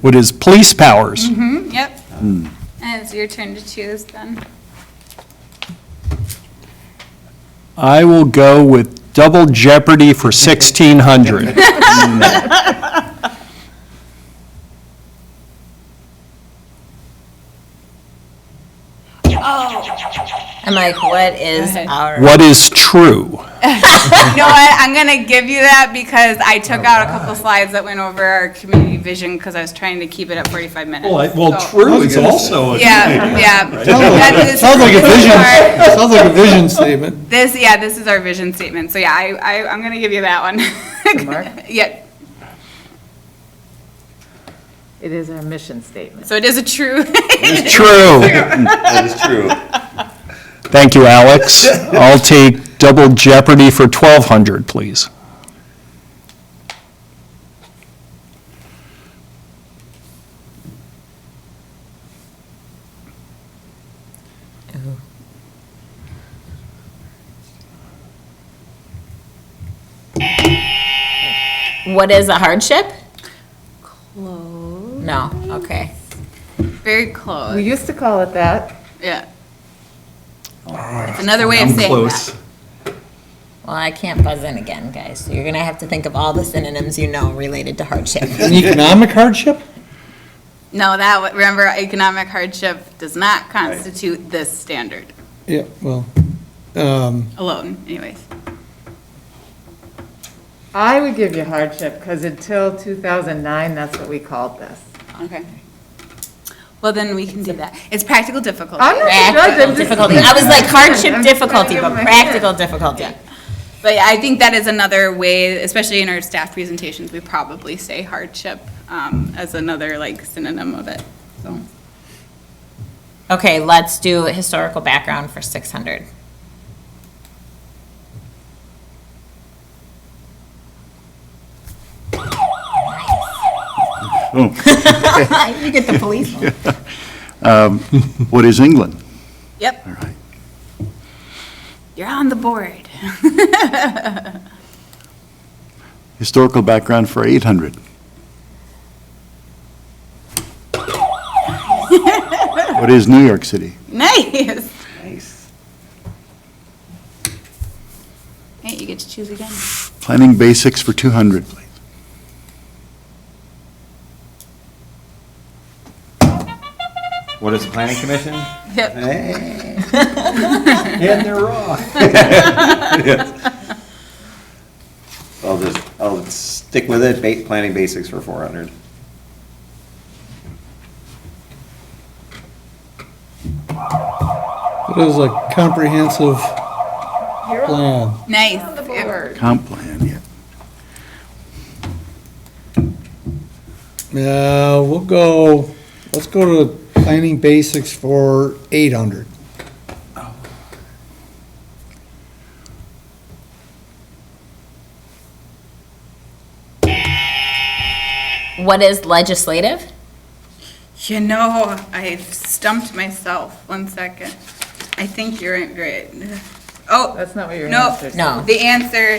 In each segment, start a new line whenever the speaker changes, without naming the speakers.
What is police powers?
Hmm, yep. And it's your turn to choose then.
I will go with double jeopardy for 1,600.
I'm like, what is
Go ahead.
our?
What is true?
You know what? I'm gonna give you that because I took out a couple slides that went over our community vision because I was trying to keep it at 45
Oh,
minutes. So-
true is also
Yeah, yeah. That
Sounds like-
is-
sounds like a vision,
Our-
sounds like a vision statement.
This, yeah, this is our vision statement. So yeah, I, I, I'm gonna give you that one.
Mark?
Yeah,
It is our mission statement.
so it is a true.
True.
That is true.
Thank you, Alex. I'll take double jeopardy for 1,200, please.
What is a hardship? Close. No, okay.
Very close,
We used to call it that.
yeah. It's another way of saying that.
Well, I can't buzz in again, guys. So You're gonna have to think of all the synonyms you know related to hardship.
An economic hardship?
No, that, w- remember, economic hardship does not constitute this standard
Yeah, well, um,
alone anyways.
I would give you hardship, because until 2009, that's what we called this.
Okay. Well, then we can do that. It's practical difficulty.
I'm not the judge,
Practical
I'm just.
difficulty. I was like hardship
I'm
difficulty,
trying to
but
give my
practical difficulty.
But yeah, I think that is another way, especially in our staff presentations, we probably say hardship um, as another like synonym of it, so.
Okay, let's do historical background for six hundred. You get the police one.
What is England?
Yep. All right. You're on the board.
Historical background for 800. What is New York City?
Nice. Hey, you get to choose again.
Planning basics for 200, please.
What is the planning commission?
Yep.
And they're off. I'll just, I'll stick with it, ba- planning basics for four hundred.
it was a comprehensive uh, plan.
Nice.
Comp plan, yeah.
Uh, we'll go, let's go to planning basics for eight hundred.
What is legislative?
You know, I've stumped myself. One second. I think you're in- right. Oh.
That's not what your
no,
answer is.
No.
The answer,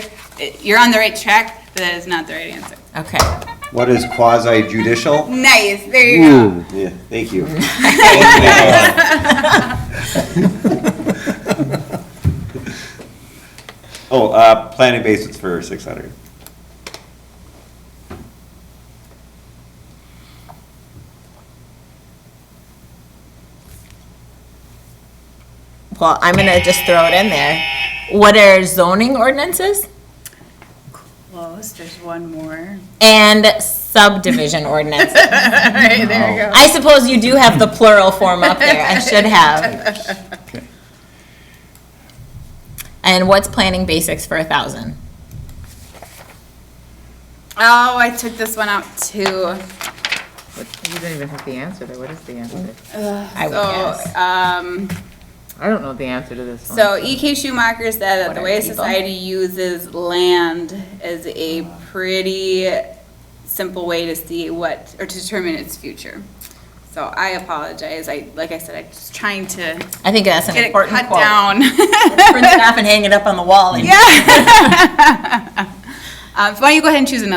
you're on the right track, but that is not the right answer.
Okay.
What is quasi judicial?
Nice. There you go.
Yeah, thank you. Oh, uh, planning basics for six hundred.
Well, I'm gonna just throw it in there. What are zoning ordinances
Close. There's one more.
and subdivision ordinances?
All right. There you go.
I suppose you do have the plural form up there. I should have. And what's planning basics for a thousand?
Oh, I took this one out too.
What- You don't even have the answer there, what is the answer?
I would
So,
guess.
um,
I don't know the answer to this one.
so E.K. Schumacher said that the
What
way
are people?
society uses land is a pretty simple way to see what, or to determine its future. So I apologize. I, like I said, I'm just trying to
I think that's an
get it
important
cut
quote.
down.
Print it off and hang it up on the wall.
Um, so why don't you go ahead and choose another